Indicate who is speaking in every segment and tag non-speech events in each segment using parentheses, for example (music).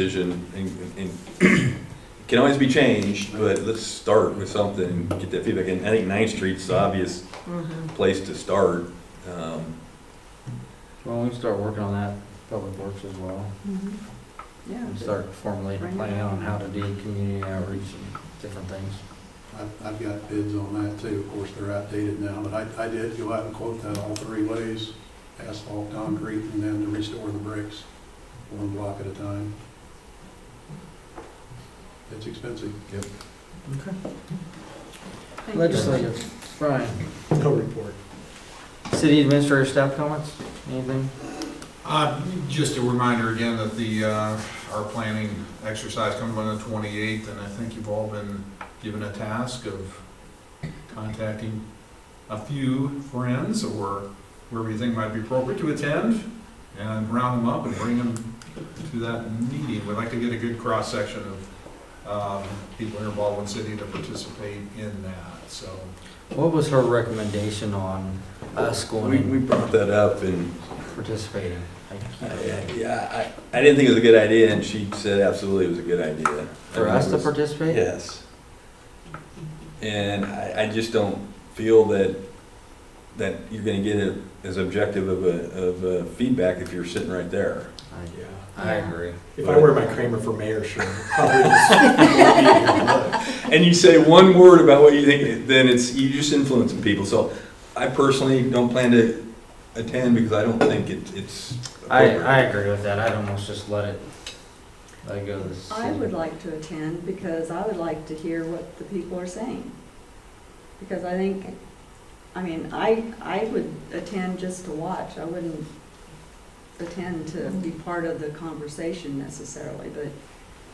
Speaker 1: decision and, and can always be changed, but let's start with something, and get that feedback. And I think Ninth Street's the obvious
Speaker 2: Mm-hmm.
Speaker 1: place to start. Um,
Speaker 3: Well, we can start working on that, public works as well,
Speaker 2: Mm-hmm. Yeah.
Speaker 3: and start formally
Speaker 2: Bring it
Speaker 3: planning
Speaker 2: up.
Speaker 3: on how to do community outreach and different things.
Speaker 4: I've, I've got bids on that too, of course, they're outdated now, but I, I did go out and quote that all three ways, asphalt, concrete, and then to restore the bricks, one block at a time. It's expensive. Yep.
Speaker 2: Thank you.
Speaker 3: Legislative, Brian,
Speaker 5: No report.
Speaker 3: city administrator staff comments, anything?
Speaker 6: Uh, Just a reminder again that the, uh, our planning exercise comes on the 28th, and I think you've all been given a task of contacting a few friends or wherever you think might be appropriate to attend, and round them up and bring them to that meeting. We'd like to get a good cross-section of um, people here in Baldwin City to participate in that, so.
Speaker 3: What was her recommendation on us
Speaker 1: We, we
Speaker 3: going and
Speaker 1: brought that up and,
Speaker 3: participating? I
Speaker 1: I-
Speaker 3: can't
Speaker 1: I-
Speaker 3: remember.
Speaker 1: yeah, I, I didn't think it was a good idea, and she said absolutely it was a good idea.
Speaker 3: For
Speaker 1: I mean,
Speaker 3: us
Speaker 1: it
Speaker 3: to
Speaker 1: was-
Speaker 3: participate?
Speaker 1: Yes. And I, I just don't feel that, that you're gonna get it as objective of a, of a feedback if you're sitting right there.
Speaker 3: I-
Speaker 5: Yeah.
Speaker 3: I agree.
Speaker 5: If I wear my Kramer for mayor shirt, probably
Speaker 6: (laughs)
Speaker 5: just.
Speaker 1: and you say one word about what you think, then it's you're just influencing people. So I personally don't plan to attend because I don't think it, it's.
Speaker 3: I,
Speaker 1: appropriate.
Speaker 3: I agree with that, I'd almost just let it, let it go to the city.
Speaker 2: I would like to attend because I would like to hear what the people are saying. Because I think, I mean, I, I would attend just to watch. I wouldn't attend to be part of the conversation necessarily, but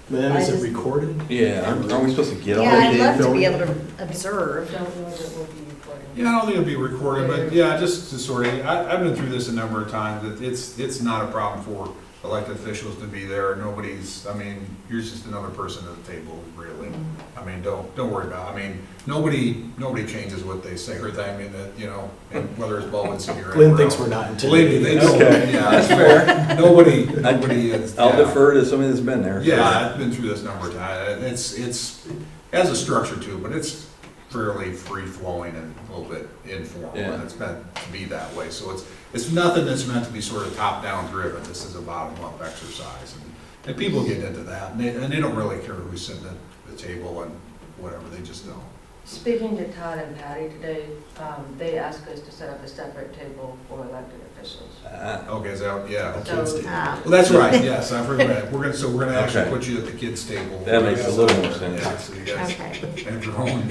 Speaker 5: Then is it recorded?
Speaker 1: Yeah, aren't aren't we supposed to get
Speaker 7: Yeah,
Speaker 1: all
Speaker 5: Yeah,
Speaker 1: that?
Speaker 7: I'd
Speaker 5: they
Speaker 7: love to
Speaker 5: don't-
Speaker 7: be able to observe.
Speaker 8: don't know that it will be recorded.
Speaker 6: Yeah, I don't think it'll be recorded, but yeah, just to sort of, I, I've been through this a number of times, that it's, it's not a problem for elected officials to be there, nobody's, I mean, you're just another person at the table, really. I mean, don't, don't worry about, it. I mean, nobody, nobody changes what they say or that, I mean, that, you know, and whether it's Baldwin City or.
Speaker 5: Glenn
Speaker 6: anywhere
Speaker 5: thinks
Speaker 6: else.
Speaker 5: we're not
Speaker 6: Believe me,
Speaker 5: intimidated.
Speaker 6: they don't, yeah, that's fair, nobody,
Speaker 1: (laughs)
Speaker 6: nobody is.
Speaker 1: I'll
Speaker 6: yeah.
Speaker 1: defer to somebody that's been there.
Speaker 6: Yeah, I've been through this number of times. It's, it's, it has a structure to it, but it's fairly free-flowing and a little bit informal.
Speaker 1: Yeah.
Speaker 6: And it's meant to be that way. So it's, it's nothing that's meant to be sort of top-down driven. This is a bottom-up exercise. And- And people get into that, and they, and they don't really care who's sitting at the table and whatever, they just don't.
Speaker 8: Speaking to Todd and Patty today, um, they asked us to set up a separate table for elected officials.
Speaker 1: Ah,
Speaker 6: Okay, so, yeah.
Speaker 5: Kids do.
Speaker 7: Ah.
Speaker 6: Well, that's right, yes, I've heard that. We're gonna, so we're gonna actually
Speaker 1: Okay.
Speaker 6: put you at the kids' table.
Speaker 1: That makes a little more sense.
Speaker 6: Yeah, so you guys
Speaker 7: Okay.
Speaker 6: have your own,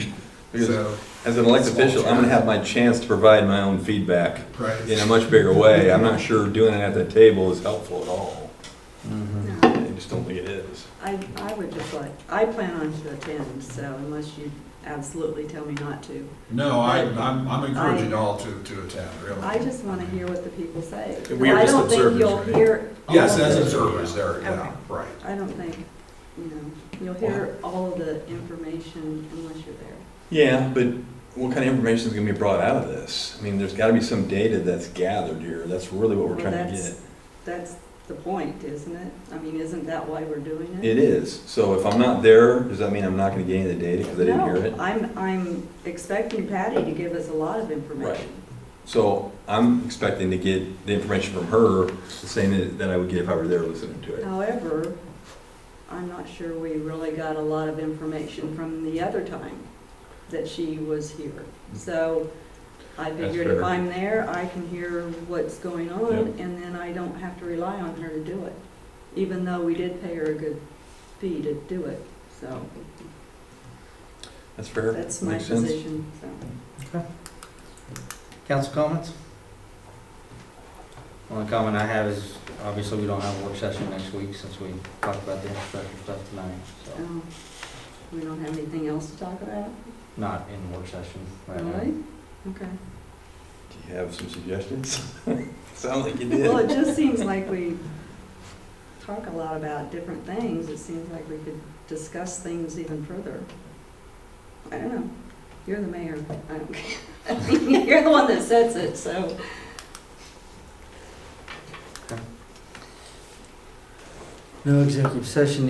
Speaker 1: Because-
Speaker 6: so,
Speaker 1: As an elected official, I'm gonna have my chance to provide my own feedback
Speaker 6: right.
Speaker 1: in a much bigger way. I'm not sure doing it at that table is helpful at all.
Speaker 3: Mhm.
Speaker 2: no,
Speaker 1: I just don't think it is.
Speaker 2: I, I would just like, I plan on to attend, so unless you absolutely tell me not to.
Speaker 6: No, I, I'm, I'm encouraging
Speaker 2: I-
Speaker 6: all to, to attend, really.
Speaker 2: I just want to hear what the people say.
Speaker 5: And we are just observers,
Speaker 2: I don't
Speaker 5: right?
Speaker 2: think you'll hear. all
Speaker 6: Yes,
Speaker 2: of
Speaker 6: as
Speaker 2: the-
Speaker 6: observers there, yeah,
Speaker 7: Okay.
Speaker 6: right.
Speaker 2: I don't think, you know, you'll hear all of the information unless you're there.
Speaker 1: Yeah, but what kind of information is going to be brought out of this? I mean, there's got to be some data that's gathered here. That's really what we're
Speaker 2: Well,
Speaker 1: trying to
Speaker 2: that's-
Speaker 1: get.
Speaker 2: That's the point, isn't it? I mean, isn't that why we're doing it?
Speaker 1: It is. So if I'm not there, does that mean I'm not going to gain the data because I didn't hear it?
Speaker 2: No, I'm, I'm expecting Patty to give us a lot of information.
Speaker 1: So I'm expecting to get the information from her, the same that- that I would get if I were there listening to
Speaker 2: Oh,
Speaker 1: it.
Speaker 2: However, I'm not sure we really got a lot of information from the other time that she was here. So I
Speaker 1: That's
Speaker 2: figured if
Speaker 1: fair.
Speaker 2: I'm there, I can hear what's going on,
Speaker 1: Yep.
Speaker 2: and then I don't have to rely on her to do it, even though we did pay her a good fee to do it, so
Speaker 1: That's fair.
Speaker 2: that's my
Speaker 1: Makes sense.
Speaker 2: position, so.
Speaker 3: Council comments? Only comment I have is, obviously, we don't have a work session next week since we talked about the infrastructure stuff tonight, so,
Speaker 2: um, We don't have anything else to talk about,
Speaker 3: not in work session right now.
Speaker 2: really? Okay.
Speaker 1: Do you have some suggestions? (laughs) Sounds like you
Speaker 2: (laughs) Well, it
Speaker 1: did.
Speaker 2: just seems like we talk a lot about different things. It seems like we could discuss things even further. I don't know. You're the mayor. I don't care. (laughs) You're the one that sets it, so.
Speaker 3: No executive session